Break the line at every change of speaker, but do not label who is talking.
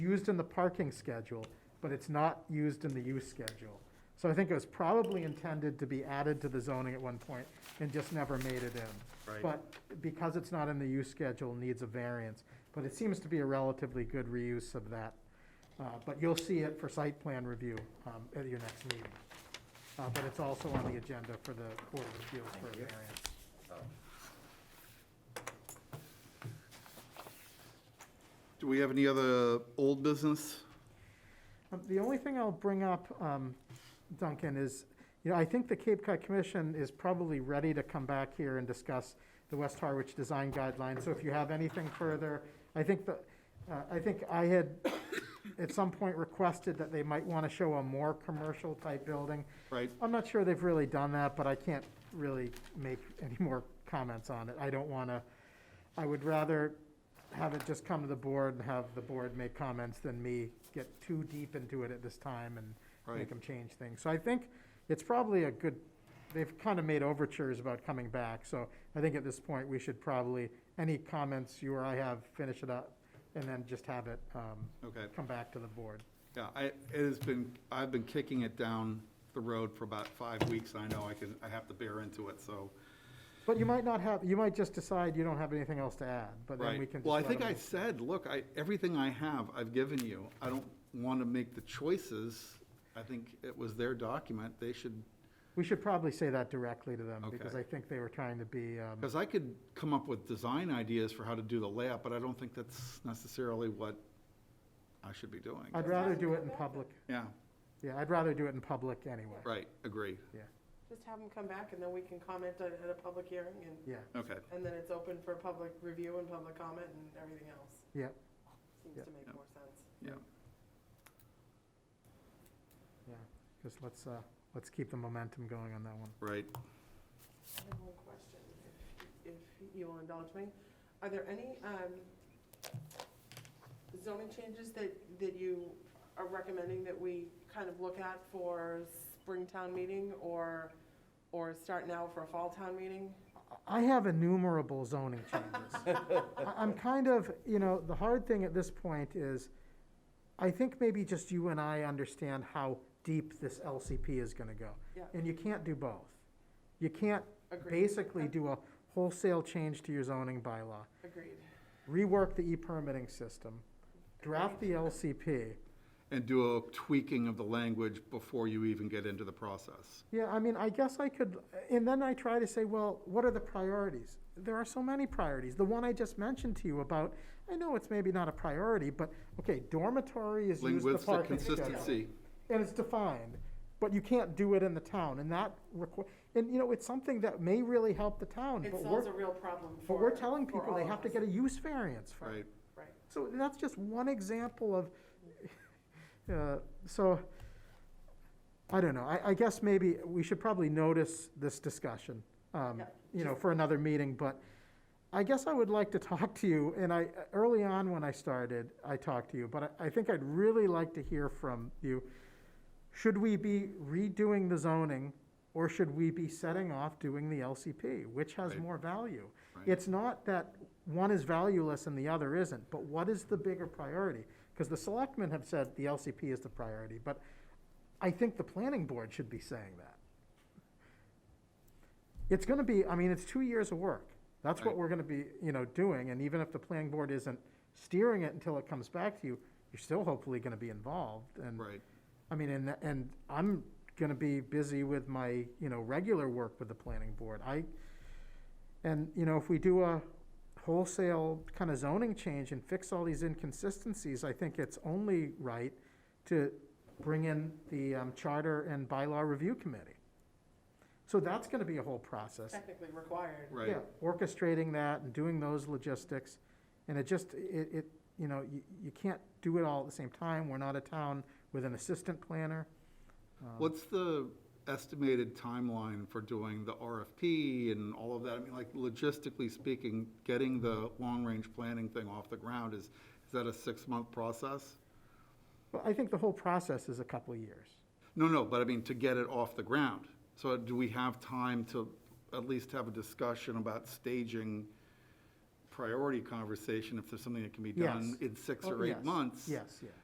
used in the parking schedule, but it's not used in the use schedule. So I think it was probably intended to be added to the zoning at one point and just never made it in.
Right.
But because it's not in the use schedule, needs a variance. But it seems to be a relatively good reuse of that. Uh, But you'll see it for site plan review um, at your next meeting. Uh, But it's also on the agenda for the Board of Appeals for a variance.
Do we have any other old business?
Um, The only thing I'll bring up, um, Duncan, is, you know, I think the Cape Cod Commission is probably ready to come back here and discuss the West Harwich Design Guidelines. So if you have anything further, I think the, uh, I think I had at some point requested that they might want to show a more commercial-type building.
Right,
I'm not sure they've really done that, but I can't really make any more comments on it. I don't want to, I would rather have it just come to the board and have the board make comments than me get too deep into it at this time and make
Right.
them change things. So I think it's probably a good, they've kind of made overtures about coming back. So I think at this point, we should probably, any comments you or I have, finish it up and then just have it um,
okay.
come back to the board.
Yeah, I, it has been, I've been kicking it down the road for about five weeks. I know I can, I have to bear into it, so.
But you might not have, you might just decide you don't have anything else to add, but then we
Right.
can.
Well, I
just let
think I
them-
said, look, I, everything I have, I've given you. I don't want to make the choices. I think it was their document. They should,
We should probably say that directly to them, because
Okay.
I think they were trying to be, um,
because I could come up with design ideas for how to do the layout, but I don't think that's necessarily what I should be doing.
I'd rather do it in public.
Yeah,
Yeah, I'd rather do it in public anyway.
right, agree.
Just have them come back and then we can comment on it at a public hearing and,
Yeah,
Okay,
and then it's open for public review and public comment and everything else.
yeah, Yeah.
Seems to make
Yeah.
more sense.
yeah.
yeah. Just let's, uh, let's keep the momentum going on that one.
Right.
I have one question, if if you'll indulge me. Are there any um, zoning changes that, that you are recommending that we kind of look at for Springtown meeting or, or start now for a fall town meeting?
I have innumerable zoning changes. I- I'm kind of, you know, the hard thing at this point is, I think maybe just you and I understand how deep this LCP is gonna go.
Yeah.
And you can't do both. You can't
Agreed,
basically do a wholesale change to your zoning bylaw,
agreed.
rework the e-permitting system, draft the LCP.
And do a tweaking of the language before you even get into the process.
Yeah, I mean, I guess I could, and then I try to say, well, what are the priorities? There are so many priorities. The one I just mentioned to you about, I know it's maybe not a priority, but, okay, dormitory is used the
Linguistic
parking schedule.
consistency,
and it's defined, but you can't do it in the town, and that requ- and, you know, it's something that may really help the town,
It
but
solves
we're,
a real problem for.
but we're telling
for
people
all
they
of
have to
us.
get a use variance for it.
right?
Right.
So that's just one example of, uh, so, I don't know, I, I guess maybe we should probably notice this discussion, um,
Yeah.
you know, for another meeting, but I guess I would like to talk to you, and I, early on when I started, I talked to you, but I, I think I'd really like to hear from you. Should we be redoing the zoning, or should we be setting off doing the LCP? Which has
Right.
more value?
Right.
It's not that one is valueless and the other isn't, but what is the bigger priority? Because the selectmen have said the LCP is the priority, but I think the planning board should be saying that. It's gonna be, I mean, it's two years of work. That's what
Right.
we're gonna be, you know, doing, and even if the planning board isn't steering it until it comes back to you, you're still hopefully gonna be involved, and.
Right,
I mean, and, and I'm gonna be busy with my, you know, regular work with the planning board. I, and, you know, if we do a wholesale kind of zoning change and fix all these inconsistencies, I think it's only right to bring in the um, Charter and Bylaw Review Committee. So that's gonna be a whole process.
Technically required.
right.
Yeah, orchestrating that and doing those logistics, and it just, it, it, you know, you, you can't do it all at the same time, we're not a town with an assistant planner. Um,
What's the estimated timeline for doing the RFP and all of that? I mean, like logistically speaking, getting the long-range planning thing off the ground is, is that a six-month process?
Well, I think the whole process is a couple of years.
No, no, but I mean, to get it off the ground. So do we have time to at least have a discussion about staging priority conversation if there's something that can be
Yes.
done in six
Oh,
or eight
yes,
months.
Yes, yeah.